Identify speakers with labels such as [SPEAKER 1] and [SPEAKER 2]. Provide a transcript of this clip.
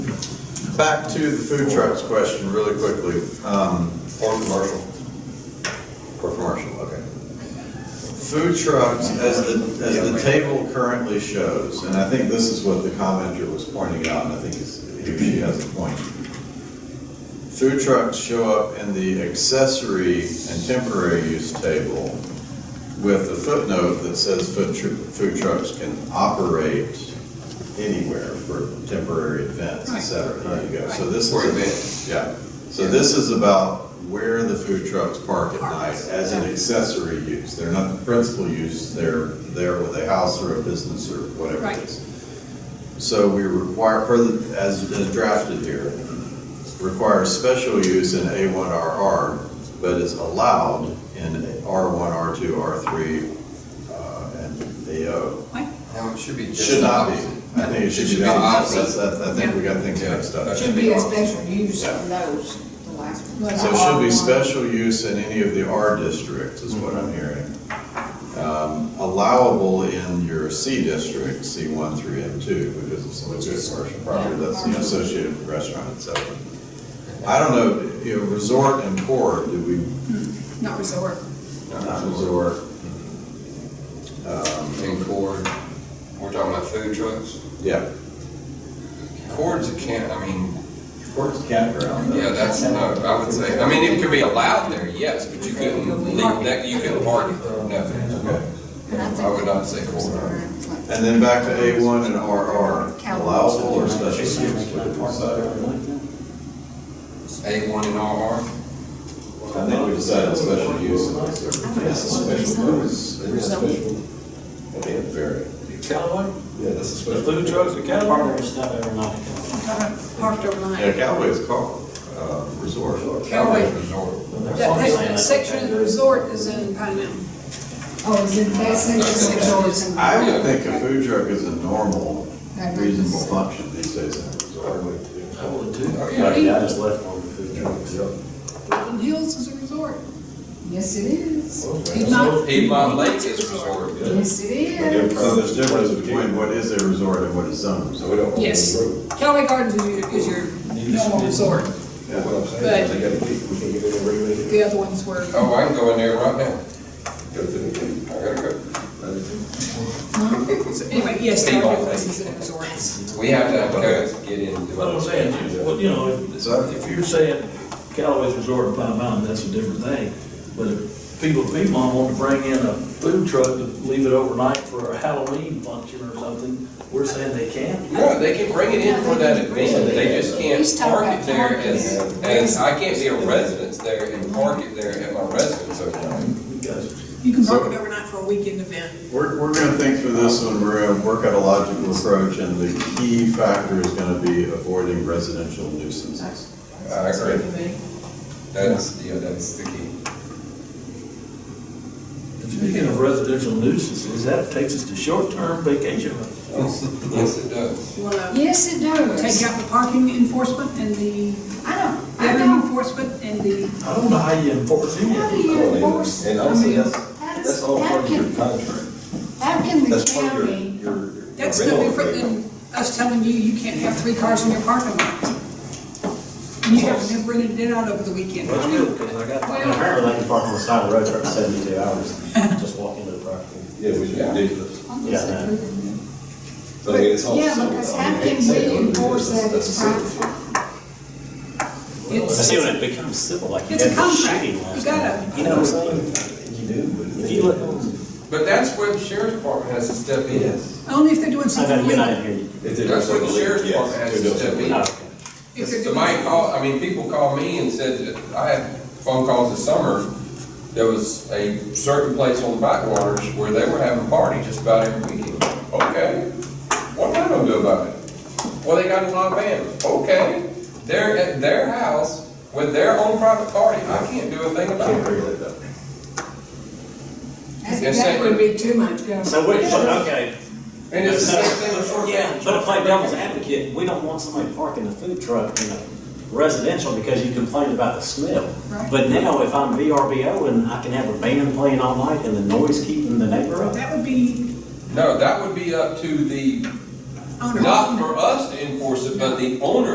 [SPEAKER 1] Back to the food trucks question really quickly, um, or commercial. Or commercial, okay. Food trucks, as the, as the table currently shows, and I think this is what the commenter was pointing out, and I think it's- he or she has a point. Food trucks show up in the accessory and temporary use table with a footnote that says food tru- food trucks can operate anywhere for temporary events, et cetera. There you go. So this
[SPEAKER 2] Right.
[SPEAKER 1] is, yeah. So this is about where the food trucks park at night as an accessory use. They're not the principal use, they're there with a house or a business or whatever it
[SPEAKER 2] Right.
[SPEAKER 1] is. So we require, per the- as drafted here, requires special use in A1RR, but is allowed in R1, R2, R3, uh, and AO.
[SPEAKER 2] What?
[SPEAKER 3] No, it should be just.
[SPEAKER 1] Should not be.
[SPEAKER 3] opposite.
[SPEAKER 1] I think it should be the opposite. That's- that's- I think we got things mixed up.
[SPEAKER 4] Should be a special use of those, the last one.
[SPEAKER 1] So it should be special use in any of the R districts, is what I'm hearing. Um, Allowable in your C district, C one, three, and two, because it's a good commercial property, that's you know, associated with restaurant, et cetera. I don't know, you know, resort and port, do we,
[SPEAKER 2] Not resort.
[SPEAKER 1] not resort?
[SPEAKER 3] And cord, we're talking about food trucks.
[SPEAKER 1] Yeah,
[SPEAKER 3] Cord's a can, I mean,
[SPEAKER 1] port's campground.
[SPEAKER 3] yeah,
[SPEAKER 1] though.
[SPEAKER 3] that's, no, I would say, I mean, it could be allowed there, yes, but you couldn't leave that, you couldn't party there,
[SPEAKER 1] Okay.
[SPEAKER 3] no. I would not say cord.
[SPEAKER 1] And then back to A one and RR, allowable or special use? what do we decide?
[SPEAKER 3] A one and R.
[SPEAKER 1] I think we decided special use. That's a special use. Okay, very.
[SPEAKER 5] Callaway?
[SPEAKER 1] Yeah, that's a
[SPEAKER 5] The
[SPEAKER 1] special.
[SPEAKER 5] food trucks at Callaway?
[SPEAKER 6] Partner stuff every night.
[SPEAKER 4] Parked
[SPEAKER 1] Yeah,
[SPEAKER 4] overnight.
[SPEAKER 1] Callaway is called, uh, resort.
[SPEAKER 2] Callaway.
[SPEAKER 3] Resort.
[SPEAKER 2] That, that section of the resort is in Pine Mountain.
[SPEAKER 4] Oh, is it that section of yours?
[SPEAKER 1] I would think a food truck is a normal, reasonable function these days in a resort.
[SPEAKER 5] I would too.
[SPEAKER 3] Yeah.
[SPEAKER 6] Yeah, I just left one of the food trucks.
[SPEAKER 2] Golden Hills is a resort.
[SPEAKER 4] Yes, it is.
[SPEAKER 2] Piedmont.
[SPEAKER 3] Piedmont Lake is resort.
[SPEAKER 4] Yes, it is.
[SPEAKER 1] So there's difference between what is a resort and what is zone resort.
[SPEAKER 2] Yes. Callaway Gardens is your, is your normal resort, but the other ones were.
[SPEAKER 3] Oh, I can go in there right now. I gotta go.
[SPEAKER 2] So Anyway, yes, there are places in resorts.
[SPEAKER 3] We have to have codes to get in.
[SPEAKER 5] That's what I'm saying, you- what, you know, if,
[SPEAKER 1] So-
[SPEAKER 5] if you're saying Callaway's Resort and Pine Mountain, that's a different thing. But if people at Piedmont want to bring in a food truck to leave it overnight for a Halloween function or something, we're saying they can.
[SPEAKER 3] No, they can bring it in for that event, they just can't
[SPEAKER 4] He's talking
[SPEAKER 3] park it there
[SPEAKER 4] about
[SPEAKER 3] as,
[SPEAKER 4] parking there.
[SPEAKER 3] as, I can't be a residence there and park it there at my residence overnight.
[SPEAKER 5] You guys,
[SPEAKER 2] You can park it overnight for a weekend event.
[SPEAKER 1] We're, we're gonna think through this one, we're gonna work out a logical approach, and the key factor is gonna be avoiding residential nuisances.
[SPEAKER 3] I agree, that's, yeah, that's the key.
[SPEAKER 5] speaking of residential nuisances, that takes us to short-term vacation rentals.
[SPEAKER 3] Yes, it does.
[SPEAKER 2] You wanna
[SPEAKER 4] Yes, it does.
[SPEAKER 2] take out the parking enforcement and the,
[SPEAKER 4] I don't, I
[SPEAKER 2] living
[SPEAKER 4] don't.
[SPEAKER 2] enforcement and the,
[SPEAKER 5] I don't know how you enforce any
[SPEAKER 4] How
[SPEAKER 5] of
[SPEAKER 4] do
[SPEAKER 5] it.
[SPEAKER 4] you enforce?
[SPEAKER 7] And also, that's,
[SPEAKER 4] How does-
[SPEAKER 7] that's all part of your
[SPEAKER 4] how can-
[SPEAKER 7] contract.
[SPEAKER 4] How can the
[SPEAKER 7] That's part of your,
[SPEAKER 4] county,
[SPEAKER 7] your. your
[SPEAKER 2] that's no
[SPEAKER 7] rental
[SPEAKER 2] different
[SPEAKER 7] agreement.
[SPEAKER 2] than us telling you, you can't have three cars in your parking lot. And You have to bring it in out over the weekend.
[SPEAKER 5] That's good, because I got.
[SPEAKER 2] Well,
[SPEAKER 6] Apparently, they can park on the side of the road for up to seventy-two hours, just walk into the property.
[SPEAKER 7] Yeah, which is
[SPEAKER 3] Yeah.
[SPEAKER 7] ridiculous.
[SPEAKER 6] Yeah, I know.
[SPEAKER 7] But I mean, it's all.
[SPEAKER 4] Yeah,
[SPEAKER 7] settled.
[SPEAKER 4] because
[SPEAKER 7] I
[SPEAKER 4] how
[SPEAKER 7] mean, I hate
[SPEAKER 4] can
[SPEAKER 7] to say
[SPEAKER 4] we
[SPEAKER 7] it, but
[SPEAKER 4] enforce
[SPEAKER 7] that's-
[SPEAKER 4] that
[SPEAKER 7] that's
[SPEAKER 4] it's
[SPEAKER 7] a certain-
[SPEAKER 4] private?
[SPEAKER 6] I
[SPEAKER 2] It's-
[SPEAKER 6] see when it becomes civil, like you
[SPEAKER 2] It's a
[SPEAKER 6] had the
[SPEAKER 2] contract.
[SPEAKER 6] shooting last
[SPEAKER 2] You gotta-
[SPEAKER 6] night. You know what I'm saying?
[SPEAKER 7] You do, but.
[SPEAKER 6] If you look,
[SPEAKER 3] But that's where the sheriff's department has to step in.
[SPEAKER 2] Only if they're doing
[SPEAKER 6] I know
[SPEAKER 2] something
[SPEAKER 6] you're not
[SPEAKER 2] illegal.
[SPEAKER 6] in here.
[SPEAKER 7] If they
[SPEAKER 3] That's
[SPEAKER 7] don't
[SPEAKER 3] where the
[SPEAKER 7] settle it,
[SPEAKER 3] sheriff's
[SPEAKER 7] yes,
[SPEAKER 3] department has
[SPEAKER 7] they
[SPEAKER 3] to
[SPEAKER 7] don't
[SPEAKER 3] step
[SPEAKER 7] settle it.
[SPEAKER 3] in.
[SPEAKER 6] No, Oh, okay.
[SPEAKER 2] If they're
[SPEAKER 3] Somebody
[SPEAKER 2] doing-
[SPEAKER 3] called, I mean, people called me and said, that I had phone calls this summer, there was a certain place on the backwaters where they were having a party just about every weekend. Okay, what am I gonna do about it? Well, they got a lot of bands, okay, they're at their house with their own private party, I can't do a thing
[SPEAKER 7] Can't
[SPEAKER 3] about it.
[SPEAKER 7] regulate that.
[SPEAKER 4] That
[SPEAKER 3] Yes,
[SPEAKER 4] that
[SPEAKER 3] sir.
[SPEAKER 4] would be too much government.
[SPEAKER 6] So wait, but okay,
[SPEAKER 3] And it's the same thing with short.
[SPEAKER 6] yeah, but to play devil's advocate, we don't want somebody parking a food truck in a residential because you complained about the smell.
[SPEAKER 2] Right.
[SPEAKER 6] But now, if I'm VRBO and I can have a band playing all night and the noise keeping the neighbor up,
[SPEAKER 2] That would be
[SPEAKER 3] No, that would be up to the,
[SPEAKER 2] owner.
[SPEAKER 3] not for us to enforce it, but the owner